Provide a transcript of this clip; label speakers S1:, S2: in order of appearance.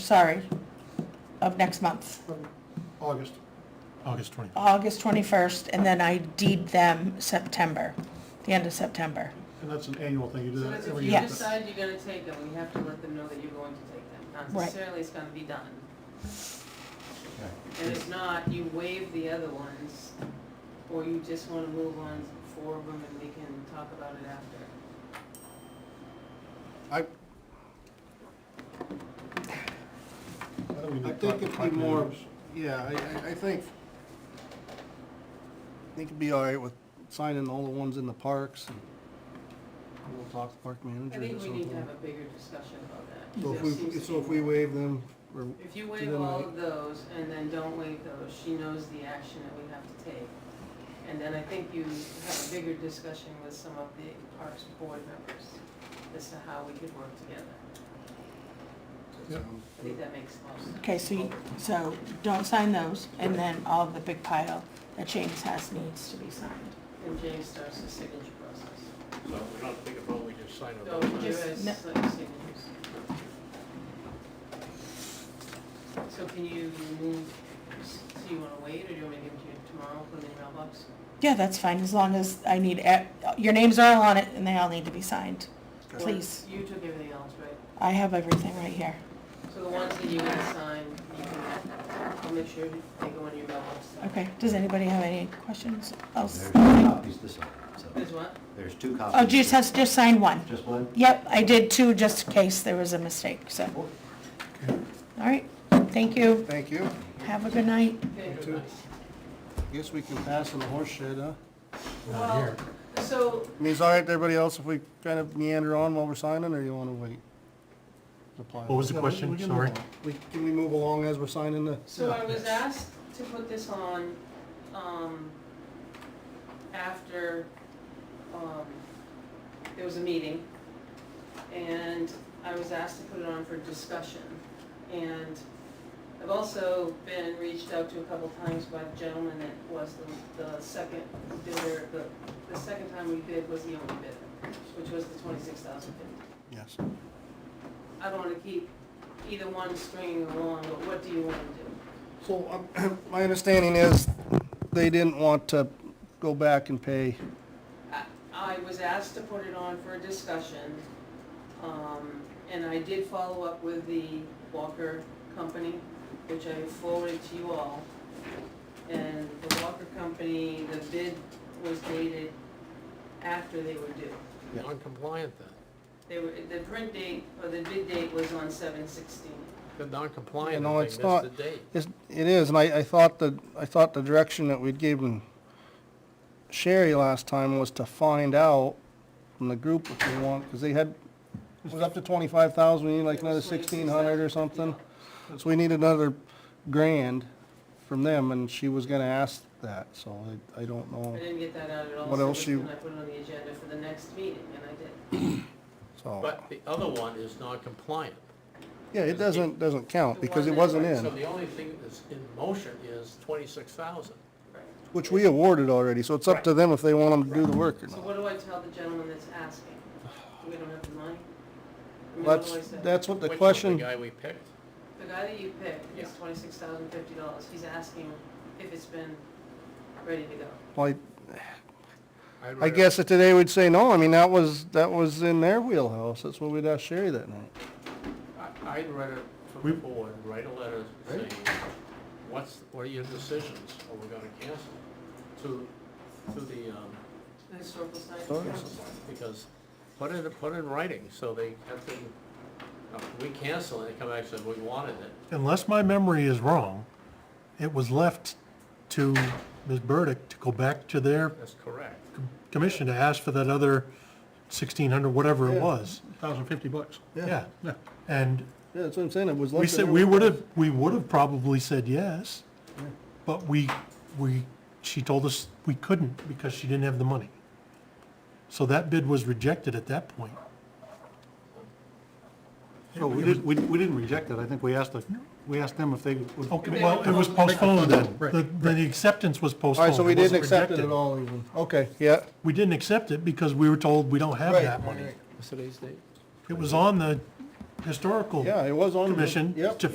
S1: sorry, of next month,
S2: August. August 20th.
S1: August 21st, and then I deed them September, the end of September.
S2: And that's an annual thing, you do
S3: So
S2: that
S3: that's if
S2: every
S3: you
S2: year.
S1: Yes.
S3: decide you're gonna take them, we have to let them know that you're going to take them. Not
S1: Right.
S3: necessarily it's gonna be done. And if not, you waive the other ones, or you just wanna move on four of them and we can talk about it after.
S4: I,
S2: Why don't we do
S4: I think
S2: five-
S4: it'd be
S2: five
S4: more-
S2: years?
S4: yeah, I, I- I think, I think it'd be all right with signing all the ones in the parks and we'll talk to park
S3: I
S4: managers or
S3: think we need to have
S4: something.
S3: a bigger discussion about that.
S4: So if
S3: 'cause that seems
S4: we,
S3: to
S4: so
S3: be
S4: if we
S3: more-
S4: waive them, or,
S3: If you
S4: to
S3: waive
S4: them,
S3: all
S4: right?
S3: of those and then don't waive those, she knows the action that we have to take. And then I think you have a bigger discussion with some of the Parks Board members as to how we could work together.
S2: Yeah.
S4: um,
S3: I think that makes most sense.
S1: Okay, so you, so don't sign those, and then all the big pile that James has needs to be signed.
S3: And James starts the signature process.
S5: So we don't think about, we just sign
S3: So
S5: it.
S3: you
S1: Just-
S3: guys,
S1: no.
S3: like, signatures. So can you move, so you wanna wait or do you want me to give it to you tomorrow, put it in your mailbox?
S1: Yeah, that's fine, as long as I need, e- your names are all on it, and they all need to be signed.
S3: Or
S1: Please.
S3: You took everything else, right?
S1: I have everything right here.
S3: So the ones that you can sign, you can, I'll make sure they go in your mailbox.
S1: Okay, does anybody have any questions else?
S6: There's two copies this one, so,
S3: There's what?
S6: there's two copies.
S1: Oh, just has, just sign one.
S6: Just one?
S1: Yep, I did two, just in case there was a mistake, so. All right, thank you.
S4: Thank you.
S1: Have a good night.
S3: Okay.
S4: too. Guess we can pass on the horse shed, huh?
S3: Well, so,
S4: I mean, it's all right to everybody else if we kind of meander on while we're signing, or you wanna wait?
S2: What was the question? Sorry.
S4: We, can we move along as we're signing the?
S3: so I was asked to put this on, um, after, um, there was a meeting. And I was asked to put it on for discussion. And I've also been reached out to a couple times by the gentleman that was the, the second bidder, the, the second time we bid was the only bidder, which was the twenty-six thousand fifty.
S4: Yes.
S3: I don't wanna keep either one stringing along, but what do you wanna do?
S4: So, um, my understanding is, they didn't want to go back and pay,
S3: I, I was asked to put it on for a discussion, um, and I did follow up with the Walker Company, which I forwarded to you all. And the Walker Company, the bid was dated after they were due.
S5: Non-compliant then,
S3: They were, the print date, or the bid date was on seven sixteen.
S5: the non-compliant,
S4: No,
S5: I
S4: it's
S5: think
S4: not.
S5: that's the date.
S4: It's- it is, and I, I thought the, I thought the direction that we'd given Sherry last time was to find out from the group what they want, because they had, it was up to twenty-five thousand, we need like another sixteen hundred or something. So we need another grand from them, and she was gonna ask that, so I, I don't
S3: I
S4: know,
S3: didn't get that out at all.
S4: What
S3: so
S4: else you-
S3: then I put it on the agenda for the next meeting, and I did.
S4: so.
S5: But the other one is non-compliant.
S4: Yeah, it doesn't, doesn't count, because it
S3: The one that-
S4: wasn't in.
S5: So the only thing that's in motion is twenty-six thousand.
S3: Right.
S4: Which we awarded already, so it's up to them if they want them to do the work or
S3: So
S4: not.
S3: what do I tell the gentleman that's asking? We don't have the money? I mean, what do
S4: That's,
S3: I say?
S4: that's what the
S5: Which was
S4: question,
S5: The guy we picked,
S3: The guy that you picked is
S5: Yeah.
S3: twenty-six thousand fifty dollars. He's asking if it's been ready to go.
S4: like,
S5: I'd
S4: I
S5: rather-
S4: guess that today we'd say no, I mean, that was, that was in their wheelhouse, that's what we'd ask Sherry that night.
S5: I- I'd rather, from the board, write a letter saying, what's, what are your decisions, or we're gonna cancel to, to the, um,
S3: The historical site?
S4: Sure.
S5: Because, put it, put it in writing, so they have to, uh, we cancel it, they come back and say, we wanted it.
S7: unless my memory is wrong, it was left to Ms. Burdick to go back to their
S5: That's correct.
S7: commission to ask for that other sixteen hundred, whatever it was.
S2: 1,050 bucks.
S7: Yeah. And
S4: Yeah, that's what I'm saying, it was.
S7: we
S4: left
S7: said,
S4: in
S7: we
S4: their
S7: would have, we would have probably said yes, but we, we, she told us we couldn't because she didn't have the money. So that bid was rejected at that point.
S2: So we didn't, we we didn't reject it, I think we asked, the we asked them if they would.
S7: Okay, well, it was postponed then. The, the acceptance was
S4: All
S7: postponed.
S4: right, so we didn't
S7: wasn't
S4: accept it
S7: rejected.
S4: at all even, okay, yeah.
S7: We didn't accept it because we were told we don't have
S4: Right,
S7: that money.
S4: right,
S5: What's today's date?
S7: It was on the, historical
S4: Yeah, it was on. the-
S7: commission
S4: Yep.
S7: to